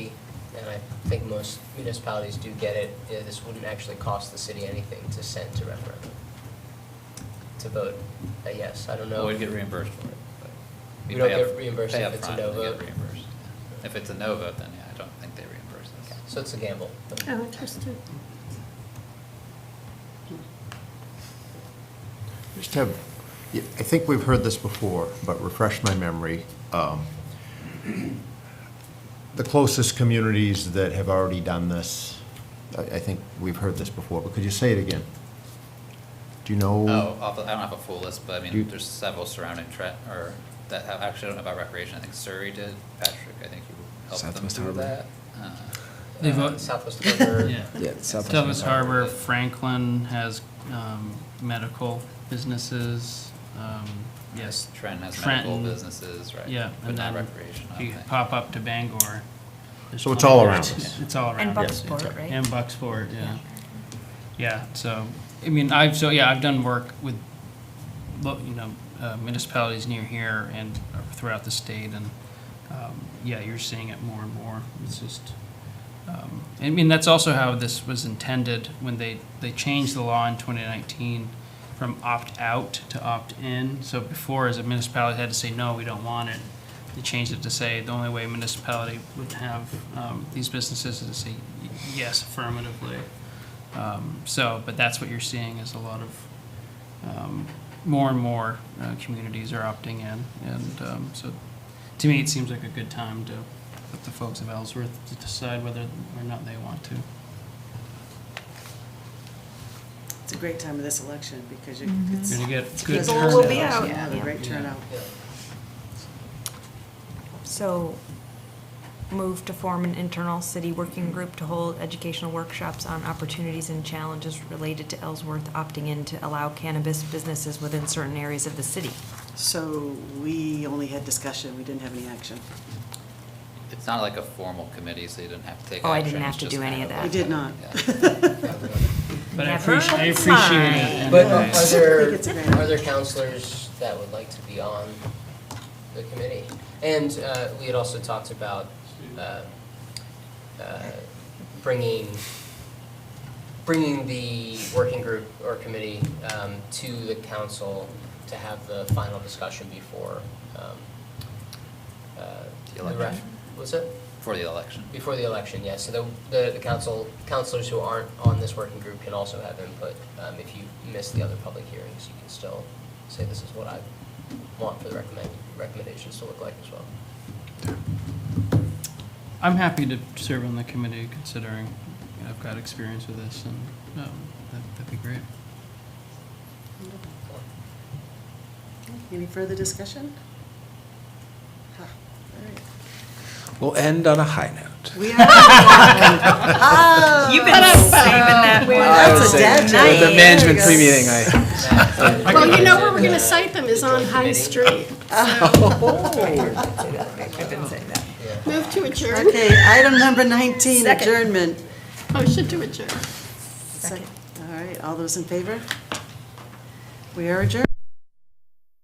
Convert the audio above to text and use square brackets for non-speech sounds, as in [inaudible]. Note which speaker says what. Speaker 1: and I think most municipalities do get it, yeah, this wouldn't actually cost the city anything to send to referendum, to vote a yes. I don't know.
Speaker 2: Well, we'd get reimbursed for it. but
Speaker 1: We
Speaker 2: we
Speaker 1: don't
Speaker 2: pay
Speaker 1: get
Speaker 2: up-
Speaker 1: reimbursed
Speaker 2: pay
Speaker 1: if
Speaker 2: up
Speaker 1: it's a
Speaker 2: front
Speaker 1: no
Speaker 2: and we get
Speaker 1: vote.
Speaker 2: reimbursed. If it's a no vote, then yeah, I don't think they reimburse
Speaker 1: Okay,
Speaker 2: us.
Speaker 1: So it's a gamble. but-
Speaker 3: Oh, interesting.
Speaker 4: Just have, I think we've heard this before, but refresh my memory. Um, The closest communities that have already done this, I, I think we've heard this before, but could you say it again? Do you know?
Speaker 2: Oh, off the- I don't have a full list, but I
Speaker 4: You-
Speaker 2: mean, there's several surrounding tre, or that have, actually I don't know about recreation. I think Surrey did. Patrick, I think you helped them
Speaker 5: Southwest
Speaker 2: through
Speaker 5: Harbor.
Speaker 2: that. Uh,
Speaker 6: They've
Speaker 1: Uh,
Speaker 6: al-
Speaker 1: Southwest
Speaker 2: [laughs]
Speaker 1: Harbor.
Speaker 6: Yeah.
Speaker 5: Yeah, Southwest
Speaker 6: Douglas
Speaker 2: Harbor.
Speaker 6: Harbor, Franklin has um, medical businesses, um, yes.
Speaker 2: Trent has medical
Speaker 6: Trenton,
Speaker 2: businesses, right?
Speaker 6: Yeah.
Speaker 2: But
Speaker 6: and
Speaker 2: not
Speaker 6: then
Speaker 2: recreation, I
Speaker 6: You
Speaker 2: don't think.
Speaker 6: pop up to Bangor. there's
Speaker 4: So it's
Speaker 6: plenty
Speaker 4: all
Speaker 6: of
Speaker 4: around.
Speaker 6: options. It's all around.
Speaker 3: And
Speaker 6: yes.
Speaker 3: Bucksport, right?
Speaker 6: And Bucksport, yeah. Yeah, so, I mean, I've, so, yeah, I've done work with, lo- you know, uh, municipalities near here and uh, throughout the state, and, um, yeah, you're seeing it more and more. It's just, um, I mean, that's also how this was intended when they, they changed the law in 2019 from opt-out to opt-in. So before, as a municipality had to say, no, we don't want it, they changed it to say, the only way a municipality would have um, these businesses is to say y- yes affirmatively. Um, So, but that's what you're seeing is a lot of, um, more and more uh, communities are opting in. And um, so, to me, it seems like a good time to let the folks of Ellsworth to decide whether or not they want to.
Speaker 7: It's a great time of this election because you,
Speaker 3: Mm-hmm.
Speaker 6: You're
Speaker 7: it's,
Speaker 6: gonna get good
Speaker 7: people
Speaker 3: turnout.
Speaker 7: will be
Speaker 6: turnout.
Speaker 7: out,
Speaker 3: Yeah.
Speaker 7: a great turnout.
Speaker 1: Yeah.
Speaker 3: So move to form an internal city working group to hold educational workshops on opportunities and challenges related to Ellsworth opting in to allow cannabis businesses within certain areas of the city.
Speaker 7: So we only had discussion, we didn't have any action.
Speaker 2: It's not like a formal committee, so you didn't have to take action.
Speaker 3: Oh, I didn't have
Speaker 2: it's
Speaker 3: to
Speaker 2: just
Speaker 3: do any
Speaker 2: kind
Speaker 3: of
Speaker 2: a-
Speaker 3: that.
Speaker 7: We did not.
Speaker 2: Yeah.
Speaker 6: But I
Speaker 3: Never
Speaker 6: appreciate, I appreciate it.
Speaker 3: mind.
Speaker 6: and
Speaker 1: But uh,
Speaker 6: I-
Speaker 1: are there,
Speaker 7: think it's a grand-
Speaker 1: are there counselors that would like to be on the committee? And uh, we had also talked about uh, uh, bringing, bringing the working group or committee um, to the council to have the final discussion before um, uh,
Speaker 2: The
Speaker 1: the ref.
Speaker 2: election.
Speaker 1: Was it?
Speaker 2: For the
Speaker 3: [laughs]
Speaker 2: election.
Speaker 1: Before the election, yes. So the- the, the council, councilors who aren't on this working group can also have input. Um, if you miss the other public hearings, you can still say this is what I want for the recommend, recommendations to look like as well.
Speaker 6: I'm happy to serve on the committee considering I've got experience with this and um, that- that'd be great.
Speaker 7: [laughs] Any further discussion? Huh, all right.
Speaker 5: We'll end on a high note. [laughs]
Speaker 7: We are.
Speaker 3: [laughs] You've been
Speaker 7: Oh,
Speaker 3: saving that one.
Speaker 7: That's a dad joke.
Speaker 5: The
Speaker 3: Nice.
Speaker 5: management pre-meeting,
Speaker 7: [laughs]
Speaker 5: I,
Speaker 8: Well, you know where we're gonna cite them is on High Street.
Speaker 3: I didn't say that.
Speaker 8: Move to adjourn.
Speaker 7: Okay, item number 19, adjournment.
Speaker 8: Motion to adjourn.
Speaker 7: Second. All right, all those in favor? We are adjourned.